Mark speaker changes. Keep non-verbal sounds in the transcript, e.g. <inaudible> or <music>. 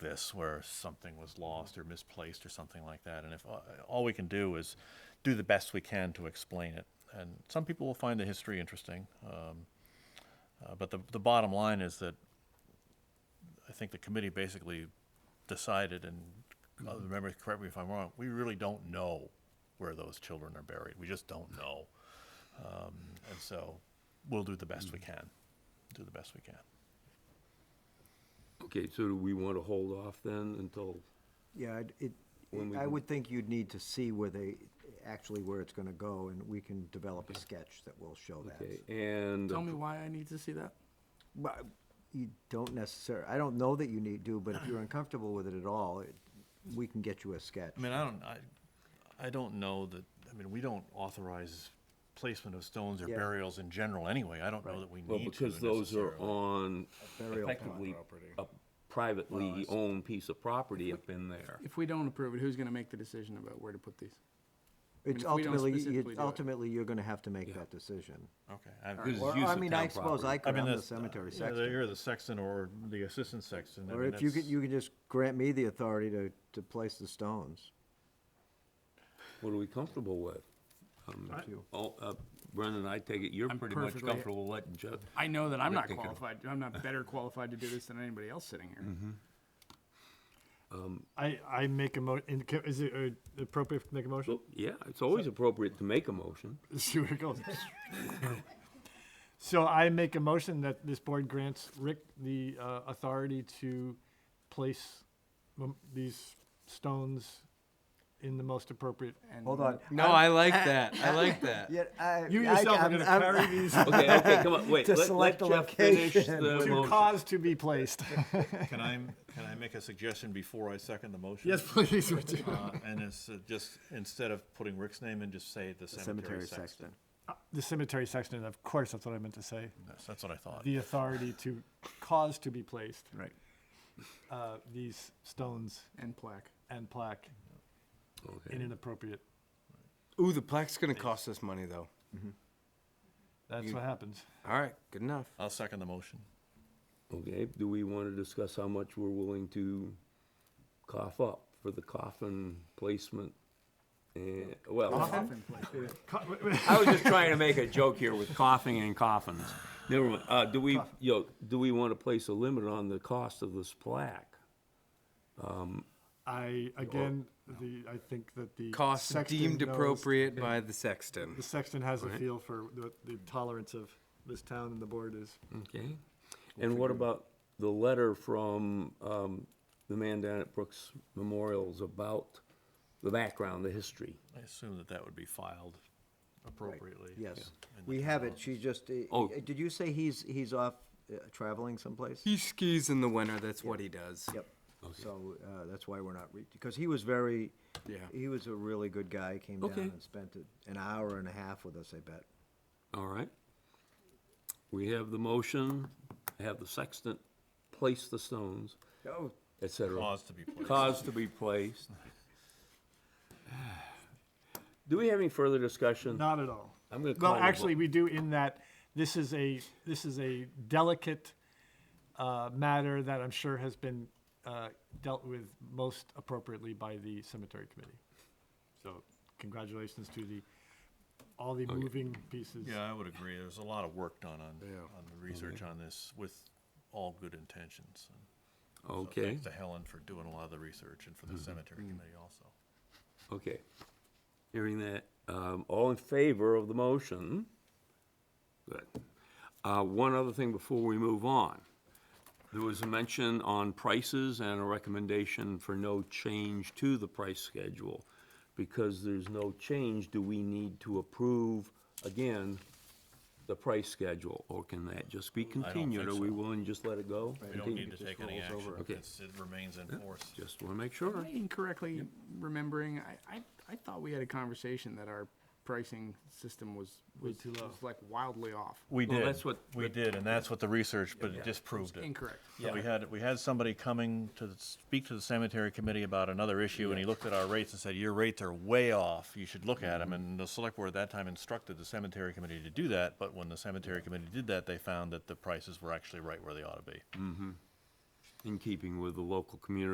Speaker 1: this where something was lost or misplaced or something like that. And if uh, all we can do is do the best we can to explain it, and some people will find the history interesting. Um, uh, but the, the bottom line is that I think the committee basically decided, and uh, remember, correct me if I'm wrong, we really don't know where those children are buried. We just don't know. Um, and so we'll do the best we can. Do the best we can.
Speaker 2: Okay, so do we want to hold off then until,
Speaker 3: Yeah, I'd- it,
Speaker 2: When we
Speaker 3: I
Speaker 2: can-
Speaker 3: would think you'd need to see where they, actually where it's gonna go, and we can develop a sketch that will show that.
Speaker 2: okay, and,
Speaker 4: Tell me why I need to see that?
Speaker 3: But you don't necessarily, I don't know that you need to, but if you're uncomfortable with it at all, it- we can get you a sketch.
Speaker 1: I mean, I don't, I, I don't know that, I mean, we don't authorize placement of stones or
Speaker 3: Yeah.
Speaker 1: burials in general anyway. I don't know that we
Speaker 2: well,
Speaker 1: need to
Speaker 2: because those are
Speaker 1: necessarily.
Speaker 2: on
Speaker 3: Burial pond
Speaker 2: effectively a privately owned piece of property up in there.
Speaker 4: If we don't approve it, who's gonna make the decision about where to put these?
Speaker 3: It's
Speaker 4: if we don't
Speaker 3: ultimately,
Speaker 4: specifically
Speaker 3: you-
Speaker 4: do it.
Speaker 3: ultimately, you're gonna have to make that decision.
Speaker 1: Okay. I-
Speaker 2: Because it's
Speaker 3: Or,
Speaker 2: used
Speaker 3: I
Speaker 2: as
Speaker 3: mean,
Speaker 2: town
Speaker 3: I suppose
Speaker 1: I
Speaker 2: property.
Speaker 3: I could,
Speaker 1: mean,
Speaker 3: I'm the
Speaker 1: that's.
Speaker 3: cemetery
Speaker 1: yeah,
Speaker 3: sexton.
Speaker 1: You're the sexton or the assistant sexton. I
Speaker 3: Or
Speaker 1: mean,
Speaker 3: if you could,
Speaker 1: that's-
Speaker 3: you could just grant me the authority to, to place the stones.
Speaker 2: What are we comfortable with? Um,
Speaker 3: Up to you.
Speaker 2: Oh, uh, Brendan, I take it you're
Speaker 4: I'm
Speaker 2: pretty much
Speaker 4: perfectly-
Speaker 2: comfortable letting Jeff,
Speaker 4: I know that I'm
Speaker 2: Rick
Speaker 4: not
Speaker 2: take it over.
Speaker 4: qualified, I'm not better qualified to do this than anybody else sitting here.
Speaker 5: I, I make a mo, and ca- is it uh, appropriate to make a motion? <laughs>
Speaker 2: Well, yeah, it's always appropriate to make a motion.
Speaker 4: See where it goes.
Speaker 5: So I make a motion that this board grants Rick the uh, authority to place mem- these stones in the most appropriate.
Speaker 4: And-
Speaker 3: Hold on.
Speaker 6: No, I like that. I like
Speaker 3: <laughs>
Speaker 6: that.
Speaker 3: Yeah, I.
Speaker 5: You
Speaker 3: I-
Speaker 5: yourself are
Speaker 3: I'm-
Speaker 5: gonna
Speaker 3: I'm-
Speaker 5: carry
Speaker 3: <laughs>
Speaker 5: these
Speaker 2: Okay, okay, come on, wait,
Speaker 3: To
Speaker 2: let, let
Speaker 3: select the
Speaker 2: Jeff finish the
Speaker 3: location.
Speaker 5: to
Speaker 2: motion.
Speaker 5: cause to be placed.
Speaker 1: Can I, can I make a suggestion before I second the motion?
Speaker 5: <laughs> Yes, please, would you?
Speaker 1: Uh, And it's uh, just, instead of putting Rick's name in, just say the cemetery
Speaker 3: Cemetery
Speaker 1: sexton.
Speaker 3: sexton.
Speaker 5: The cemetery sexton, of course, that's what I meant to say.
Speaker 1: Yes, That's what I thought.
Speaker 5: The authority to cause to be placed,
Speaker 4: Right.
Speaker 5: uh, these stones
Speaker 4: And plaque.
Speaker 5: and plaque
Speaker 2: Okay.
Speaker 5: in an appropriate,
Speaker 6: Ooh, the plaque's gonna cost us money though.
Speaker 5: that's what happens.
Speaker 6: All right, good enough.
Speaker 5: Uh,
Speaker 1: I'll second the motion.
Speaker 2: Okay, do we want to discuss how much we're willing to cough up for the coffin placement? And, well,
Speaker 4: Often plaque.
Speaker 2: I was just trying to make a joke here with coughing and coffins. Never mind, uh, do we, yo, do we want to place a limit on the cost of this plaque?
Speaker 5: I, again, the, I think that the.
Speaker 6: Cost
Speaker 5: sexton
Speaker 6: deemed
Speaker 5: knows-
Speaker 6: appropriate by the sexton.
Speaker 5: The sexton has a feel for the, the tolerance of this town and the board is.
Speaker 2: Okay, and what about the letter from, um, the man down at Brooks Memorials about the background, the history?
Speaker 1: I assume that that would be filed appropriately.
Speaker 3: Yes,
Speaker 1: in the
Speaker 3: we have it, she just, uh,
Speaker 2: Oh.
Speaker 3: uh, did you say he's, he's off uh, traveling someplace?
Speaker 6: He skis in the winter. That's what he does.
Speaker 3: Yep, so, uh, that's why we're not, re- because he was very,
Speaker 6: Yeah.
Speaker 3: he was a really good guy, came down
Speaker 2: Okay.
Speaker 3: and spent a- an hour and a half with us, I bet.
Speaker 2: All right. We have the motion, have the sextant place the stones,
Speaker 3: Oh,
Speaker 2: et cetera.
Speaker 1: Laws to be placed.
Speaker 2: Cause to be placed. Do we have any further discussion?
Speaker 5: Not at all.
Speaker 2: Hmm. I'm gonna call
Speaker 5: Well,
Speaker 2: the
Speaker 5: actually,
Speaker 2: vote.
Speaker 5: we do in that this is a, this is a delicate uh, matter that I'm sure has been uh, dealt with most appropriately by the cemetery committee. So congratulations to the, all the moving pieces.
Speaker 1: Yeah, I would agree. There's a lot of work done on, on the research on this with all good intentions. And so
Speaker 2: Okay,
Speaker 1: Thanks to Helen for doing a lot of the research and for the cemetery committee also.
Speaker 2: okay. Hearing that, um, all in favor of the motion? Good. Uh, one other thing before we move on. There was a mention on prices and a recommendation for no change to the price schedule. Because there's no change, do we need to approve, again, the price schedule? Or can that just be continued?
Speaker 1: think
Speaker 2: Are we
Speaker 1: so.
Speaker 2: willing to just let it go?
Speaker 1: We don't
Speaker 2: Continue?
Speaker 1: need to take any action. It's, it remains in force.
Speaker 2: Just want to make sure.
Speaker 4: Am I incorrectly remembering, I, I, I thought we had a conversation that our pricing system was, was was, like wildly off.
Speaker 1: We
Speaker 2: Well,
Speaker 1: did.
Speaker 2: that's what-
Speaker 1: We did, and that's what the research, but it disproved it.
Speaker 4: Incorrect.
Speaker 1: Yeah, we had, we had somebody coming to speak to the cemetery committee about another issue, and he looked at our rates and said, your rates are way off, you should look at them, and the select board at that time instructed the cemetery committee to do that, but when the cemetery committee did that, they found that the prices were actually right where they ought to be.
Speaker 2: In keeping with the local community